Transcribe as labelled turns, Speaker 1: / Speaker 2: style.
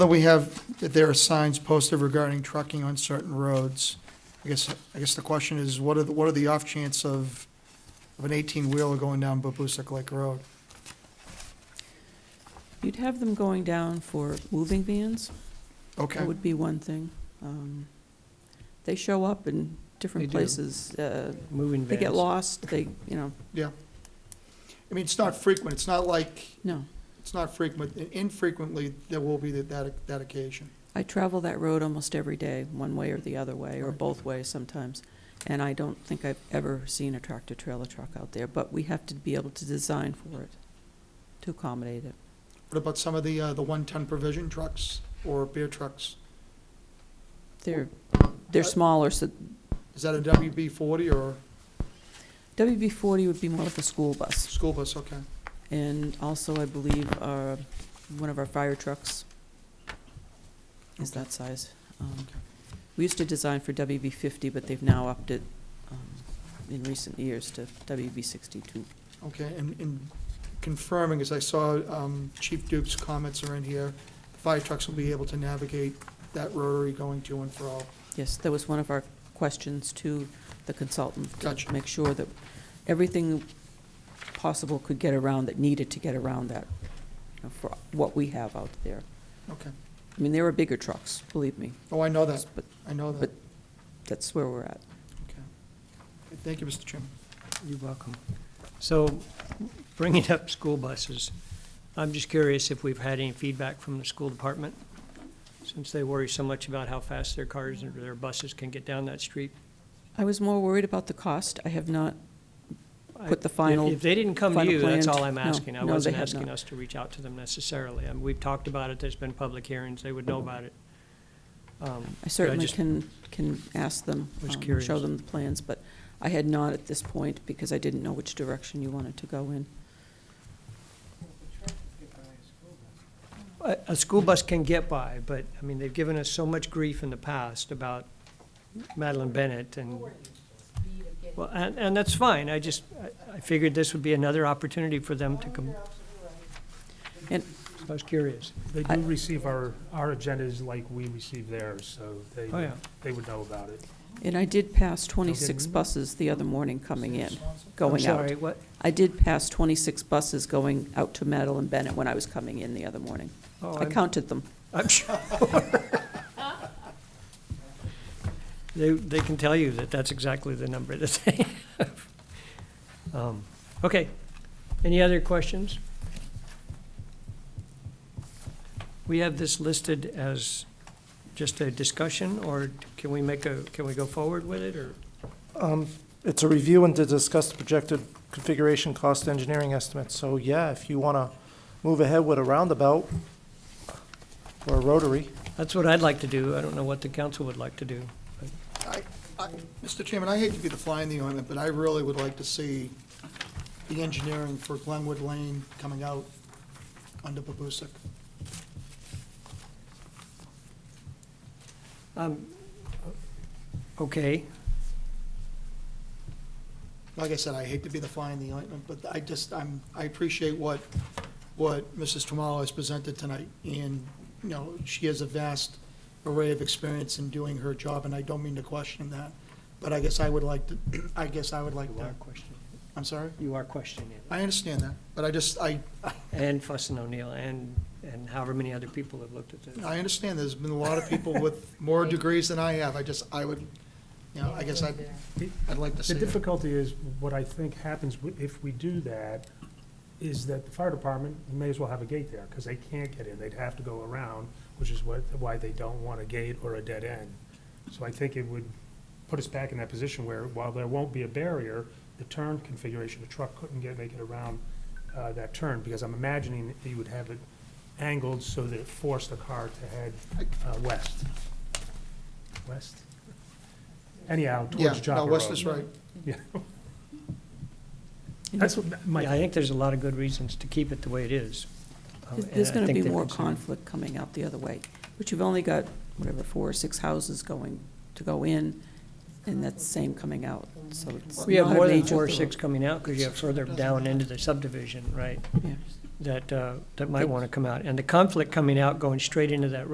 Speaker 1: But we have, that there are signs posted regarding trucking on certain roads. I guess, I guess the question is, what are, the what are the off chance of, of an eighteen-wheeler going down Babusak Lake Road?
Speaker 2: You'd have them going down for moving vans,
Speaker 1: Okay,
Speaker 2: that would be one thing. Um, They show up in different
Speaker 3: They do.
Speaker 2: places. uh,
Speaker 3: Moving vans.
Speaker 2: They get lost, they, you know,
Speaker 1: I mean, it's not frequent, it's not like,
Speaker 2: no.
Speaker 1: it's not frequent, infrequently, there will be that- that, that occasion.
Speaker 2: I travel that road almost every day, one way or the other way, or
Speaker 1: Right.
Speaker 2: both ways sometimes. And I don't think I've ever seen a tractor-trailer truck out there, but we have to be able to design for it, to accommodate it.
Speaker 1: What about some of the, uh, the one-ton provision trucks or beer trucks?
Speaker 2: They're, they're
Speaker 1: Uh,
Speaker 2: smaller, so
Speaker 1: Is that a WB forty or
Speaker 2: WB forty would be more like a school bus.
Speaker 1: school bus? Okay.
Speaker 2: And also, I believe, uh, one of our fire trucks is
Speaker 1: Okay.
Speaker 2: that size. Um, We used to design for WB fifty, but they've now upped it um, in recent years to WB sixty-two.
Speaker 1: Okay, and, and confirming, as I saw um, Chief Duke's comments are in here, fire trucks will be able to navigate that rotary going to and fro.
Speaker 2: Yes, that was one of our questions to the consultant. to
Speaker 1: Gotcha.
Speaker 2: Make sure that everything possible could get around that needed to get around that, you know, for what we have out there.
Speaker 1: Okay.
Speaker 2: I mean, there are bigger trucks, believe me,
Speaker 1: Oh, I know that,
Speaker 2: but
Speaker 1: I know that.
Speaker 2: But- that's where we're at.
Speaker 1: Okay. Thank you, Mr. Chairman.
Speaker 3: You're welcome. So bringing up school buses, I'm just curious if we've had any feedback from the school department, since they worry so much about how fast their cars or their buses can get down that street.
Speaker 2: I was more worried about the cost. I have not
Speaker 3: I-
Speaker 2: put the
Speaker 3: if-
Speaker 2: final,
Speaker 3: If they didn't come to
Speaker 2: final
Speaker 3: you, that's
Speaker 2: plan-
Speaker 3: all I'm
Speaker 2: no,
Speaker 3: asking. I
Speaker 2: no, they
Speaker 3: wasn't
Speaker 2: have
Speaker 3: asking
Speaker 2: not.
Speaker 3: us to reach out to them necessarily. I mean, we've talked about it, there's been public hearings, they would know about it. Um,
Speaker 2: I certainly
Speaker 3: just-
Speaker 2: can, can ask them,
Speaker 3: Was
Speaker 2: um,
Speaker 3: curious.
Speaker 2: show them the plans, but I had not at this point because I didn't know which direction you wanted to go in.
Speaker 3: A, a school bus can get by, but, I mean, they've given us so much grief in the past about Madeline Bennett and. Well, and, and that's fine, I just, I, I figured this would be another opportunity for them to come.
Speaker 2: And-
Speaker 3: I was curious,
Speaker 4: They
Speaker 2: I-
Speaker 4: do receive our, our agendas like we receive theirs, so they,
Speaker 3: oh, yeah,
Speaker 4: they would know about it.
Speaker 2: And I did
Speaker 3: Oh,
Speaker 2: pass 26 buses the other morning coming in,
Speaker 3: I'm
Speaker 2: going out.
Speaker 3: sorry, what,
Speaker 2: I did pass 26 buses going out to Madeline Bennett when I was coming in the other morning.
Speaker 3: oh,
Speaker 2: I
Speaker 3: I'm,
Speaker 2: counted them.
Speaker 3: I'm sure. They, they can tell you that that's exactly the number that they have. Um, Okay, any other questions? We have this listed as just a discussion, or can we make a, can we go forward with it, or?
Speaker 5: Um, It's a review and to discuss the projected configuration cost engineering estimates. So yeah, if you want to move ahead with a roundabout or a rotary,
Speaker 3: That's what I'd like to do, I don't know what the council would like to do.
Speaker 1: I- Mr. Chairman, I hate to be the fly in the ointment, but I really would like to see the engineering for Glenwood Lane coming out under Babusak.
Speaker 3: Um, Okay,
Speaker 1: Like I said, I hate to be the fly in the ointment, but I just, I'm, I appreciate what, what Mrs. Tamalo has presented tonight. And, you know, she has a vast array of experience in doing her job, and I don't mean to question that. But I guess I would like to, I guess I would like
Speaker 3: you are
Speaker 1: that.
Speaker 3: questioning,
Speaker 1: I'm sorry?
Speaker 3: you are questioning it.
Speaker 1: I understand that, but I just, I,
Speaker 3: And Fussin O'Neill, and, and however many other people have looked at this.
Speaker 1: I understand there's been a lot of people with more degrees than I have. I just, I would, you know, I guess I'd, I'd like to see
Speaker 4: The
Speaker 1: it.
Speaker 4: difficulty is, what I think happens wi- if we do that, is that the fire department may as well have a gate there, because they can't get in, they'd have to go around, which is what, why they don't want a gate or a dead end. So I think it would put us back in that position where, while there won't be a barrier, the turn configuration, the truck couldn't get, make it around uh, that turn, because I'm imagining that you would have it angled so that it forced the car to head uh, west. West? Anyhow,
Speaker 1: Yeah,
Speaker 4: towards
Speaker 1: no,
Speaker 4: Joppa
Speaker 1: Wes
Speaker 4: Road.
Speaker 1: is right.
Speaker 4: Yeah.
Speaker 2: And
Speaker 4: That's what my,
Speaker 3: Yeah, I think there's a lot of good reasons to keep it the way it is. Uh, and
Speaker 2: There's
Speaker 3: I
Speaker 2: going to
Speaker 3: think
Speaker 2: be
Speaker 3: they're
Speaker 2: more
Speaker 3: concerned.
Speaker 2: conflict coming out the other way, but you've only got, whatever, four or six houses going, to go in, and that's same coming out, so it's
Speaker 3: We have
Speaker 2: not a
Speaker 3: more than
Speaker 2: major
Speaker 3: four or
Speaker 2: thorough-
Speaker 3: six coming out, because you have further down into the subdivision, right,
Speaker 2: yeah.
Speaker 3: that, uh, that might want to come out. And the conflict coming out, going straight into that road